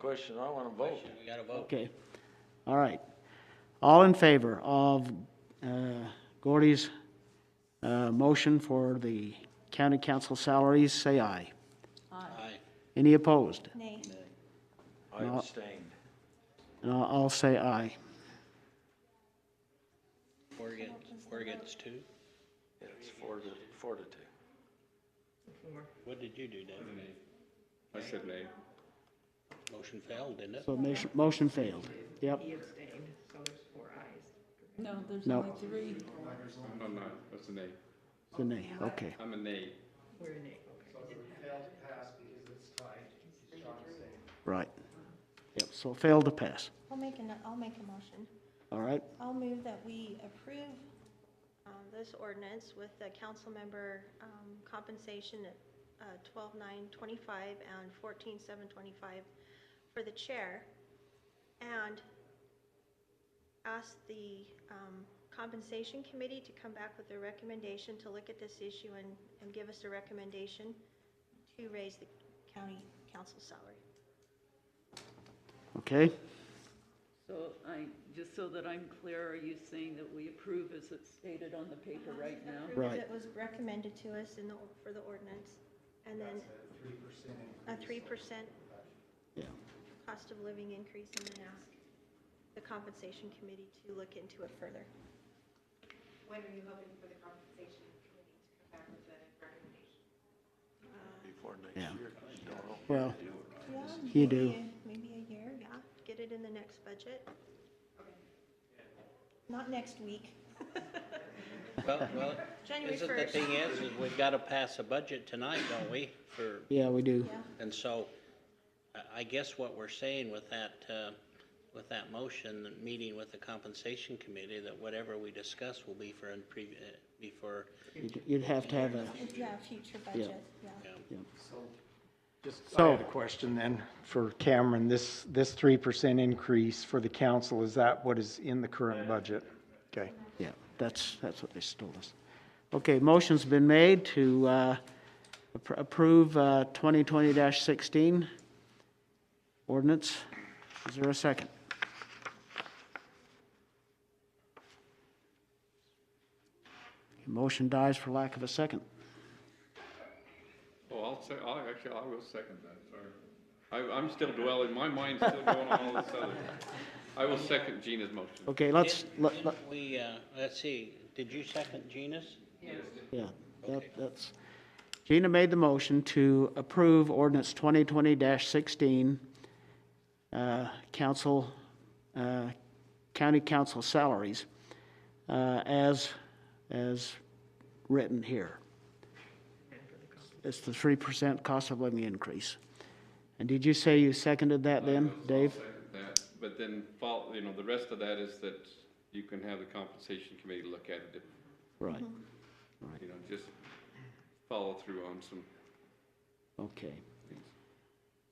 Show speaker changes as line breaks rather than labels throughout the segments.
Question, I want to vote.
We gotta vote.
Okay, all right. All in favor of uh, Gordy's uh, motion for the county council salaries, say aye.
Aye.
Any opposed?
Nay.
I
No.
abstained.
And I'll- Uh, I'll say aye.
Four against, four against two?
It's four to, four to two.
What did you do, Dave?
I said nay.
Motion failed, didn't it?
So motion- motion failed. Yep,
He abstained, so there's four ayes.
No, there's
No.
only three.
No, Oh, no, that's a nay.
the nay, okay.
I'm a nay.
We're in nay, okay.
Right. Yep, so failed to pass.
I'll make an, I'll make a motion.
All right,
I'll move that we approve um, this ordinance with the council member um, compensation at uh, twelve nine twenty-five and fourteen seven twenty-five for the chair, and ask the um, compensation committee to come back with a recommendation to look at this issue and, and give us a recommendation to raise the county council salary.
okay.
So I, just so that I'm clear, are you saying that we approve as it's stated on the paper
Um,
right now?
approve
Right.
It was recommended to us in the, for the ordinance, and then. a three percent.
Yeah.
cost of living increase, and then ask the compensation committee to look into it further.
When are you hoping for the compensation committee to come back with a recommendation?
Before next
Yeah.
year, don't know.
Well,
Yeah,
You
maybe
do.
a- Maybe a year, yeah, get it in the next budget. Not next week,
Well, well,
January
isn't the
first,
thing is, is we've gotta pass a budget tonight, don't we? For,
yeah, we do.
yeah.
and so, I, I guess what we're saying with that, uh, with that motion, the meeting with the compensation committee, that whatever we discuss will be for, in previ- uh, be for,
You'd- You'd have to have a,
Yeah, future budget, yeah.
yeah.
Just, I
So-
had a question then for Cameron. This, this three percent increase for the council, is that what is in the current budget? Okay.
yeah, that's, that's what they told us. Okay, motion's been made to uh, appro- approve uh, 2020-16 ordinance. Is there a second? Motion dies for lack of a second.
Oh, I'll say, I'll, actually, I will second that, sorry. I, I'm still dwelling, my mind's still going on all this other. I will second Gina's motion.
Okay, let's,
Didn't-
let- let-
didn't We, uh, let's see, did you second Gina's?
yeah, that- that's, Gina made the motion to approve ordinance 2020-16, uh, council, uh, county council salaries uh, as, as written here. It's the 3% cost of living increase. And did you say you seconded that then, Dave?
That, but then, fol- you know, the rest of that is that you can have the compensation committee look at it,
Right,
you know, just follow through on some
okay.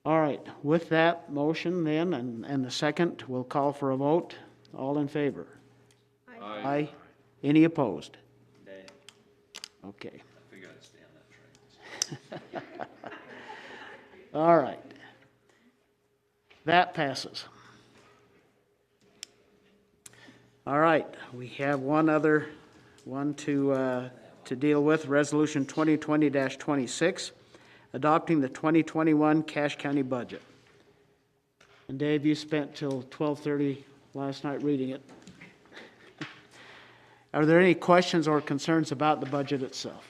All right, with that motion then, and, and the second, we'll call for a vote. All in favor?
Aye.
Aye. Any opposed?
Dave.
Okay.
We gotta stay on that train.
All right. That passes. All right, we have one other, one to, uh, to deal with, Resolution 2020-26, adopting the 2021 Cache County budget. And Dave, you spent till 12:30 last night reading it. Are there any questions or concerns about the budget itself?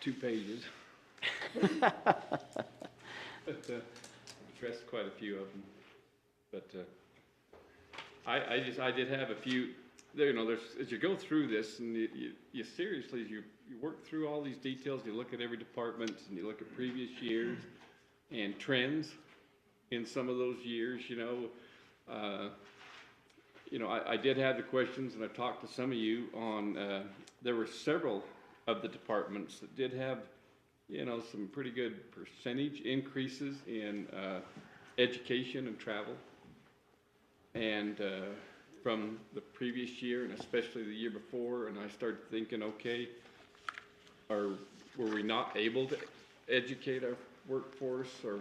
two pages. But, uh, addressed quite a few of them, but, uh, I, I just, I did have a few, there, you know, there's, as you go through this and you, you, you seriously, you, you work through all these details, you look at every department and you look at previous years and trends in some of those years, you know, uh, you know, I, I did have the questions, and I talked to some of you on, uh, there were several of the departments that did have, you know, some pretty good percentage increases in, uh, education and travel. And, uh, from the previous year, and especially the year before, and I started thinking, okay, are, were we not able to educate our workforce or